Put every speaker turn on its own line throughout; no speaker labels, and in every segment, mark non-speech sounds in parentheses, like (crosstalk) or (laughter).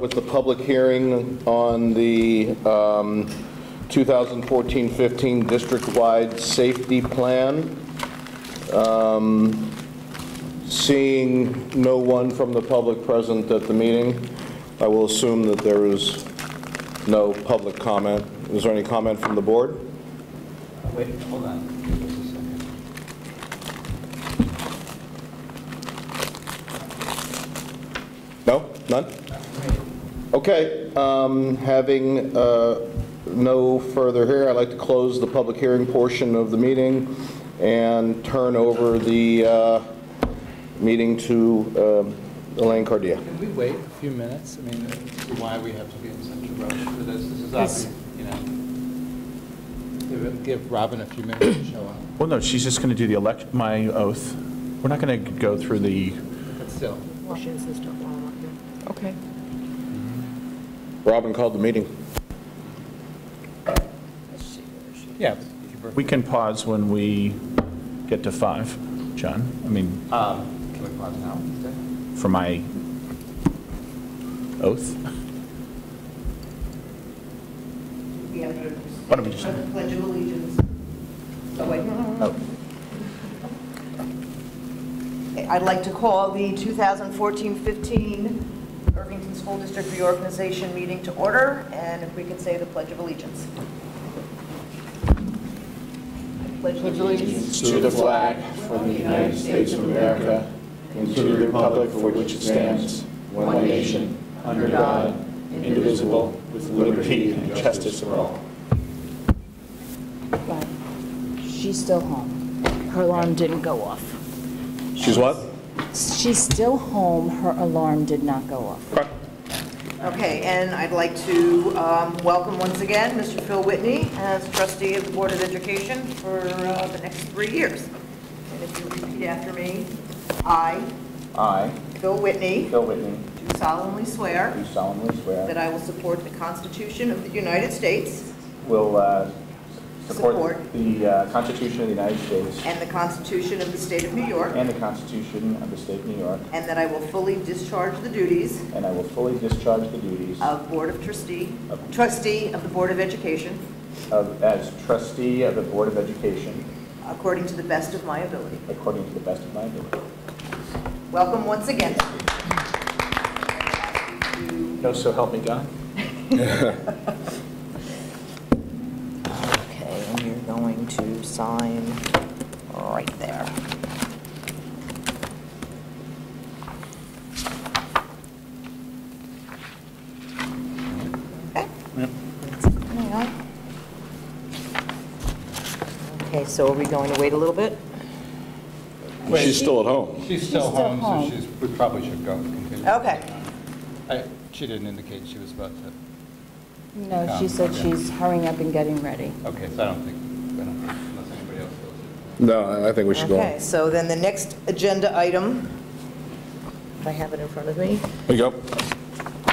with the public hearing on the um, 2014-15 district-wide safety plan. Um, Seeing no one from the public present at the meeting, I will assume that there is no public comment. Is there any comment from the board?
Wait, hold on. Just a second.
No? None? Okay, um, having uh, no further here, I'd like to close the public hearing portion of the meeting and turn over the uh, meeting to um, Elaine Cardia.
Can we wait a few minutes? I mean, as to why we have to be in such a rush for this, this is obvious, you know. Give- Give Robin a few minutes to show up,
Well, no, she's just going to do the election, my oath. We're not going to go through the,
but still.
Washington system while I'm up here. Okay.
Robin called the meeting.
Yeah.
we can pause when we get to five, John. I mean,
Um, Can we pause now? instead?
for my oath.
We have to
Why don't we just-
the Pledge of Allegiance. Oh, wait.
Oh, Oh.
I'd like to call the 2014-15 Irvington School District Reorganization Meeting to order, and if we could say the Pledge of Allegiance. I Pledge allegiance
to the flag from the United States of America and to the republic for which it stands, one nation, under God, indivisible, with liberty and justice for all.
But she's still home. Her alarm didn't go off.
She's what?
She's still home. Her alarm did not go off.
Okay, and I'd like to um, welcome once again Mr. Phil Whitney as trustee of the Board of Education for uh, the next three years. And if you repeat after me, I,
I,
Phil Whitney,
Bill Whitney,
do solemnly swear
do solemnly
that
swear
I will support the Constitution of the United States
will uh,
Support.
support the uh, Constitution of the United States
and the Constitution of the State of New York,
and the Constitution of the State of New York,
and that I will fully discharge the duties
and I will fully discharge the duties
of Board of Trustee, trustee of the Board of Education
of- as trustee of the Board of Education
according to the best of my ability.
according to the best of my ability.
Welcome once again. To
No, so help me God.
Okay, and you're going to sign right there. Okay. Hang on. Okay, so are we going to wait a little bit?
She's still at home.
She's still
still
home, so
home.
she's, we probably should go. continue.
Okay.
I- She didn't indicate she was about to,
No, she said she's hurrying up and getting ready.
okay, so I don't think, I don't think, unless anybody else feels it.
No, I think we should go.
Okay,
on.
so then the next agenda item, if I have it in front of me,
There you go.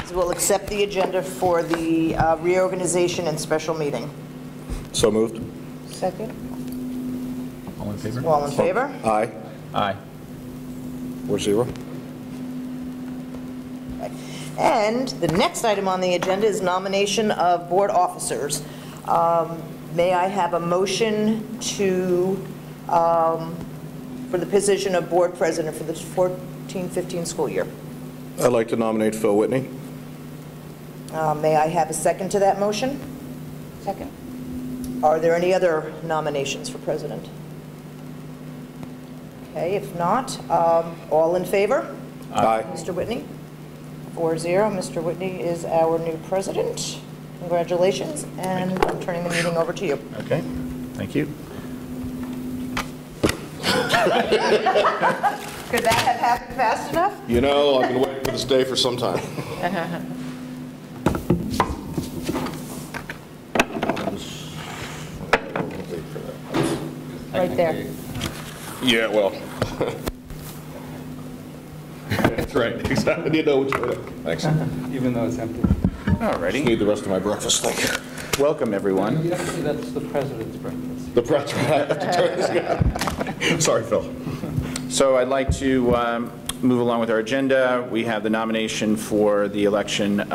is we'll accept the agenda for the uh, reorganization and special meeting.
So moved.
Second.
all in favor?
All in favor?
Aye.
Aye.
Four zero.
And the next item on the agenda is nomination of board officers. Um, May I have a motion to, um, for the position of board president for the 14-15 school year?
I'd like to nominate Phil Whitney.
Uh, May I have a second to that motion?
Second.
Are there any other nominations for president? Okay, if not, um, all in favor?
Aye.
Mr. Whitney? Four zero. Mr. Whitney is our new president. Congratulations, and I'm turning the meeting over to you.
Okay, thank you.
Could that have happened fast enough?
You know, I've been waiting for this day for some time.
Right there.
Technically,
(laughs) Yeah, well. (laughs) That's right, exactly. I need to know which way to. Thanks.
Even though it's empty.
All
Just
righty.
need the rest of my breakfast, thank you.
Welcome, everyone.
Yeah, see, That's the president's breakfast.
The press, I have to turn this (laughs) guy. Sorry, Phil.
So I'd like to um, move along with our agenda. We have the nomination for the election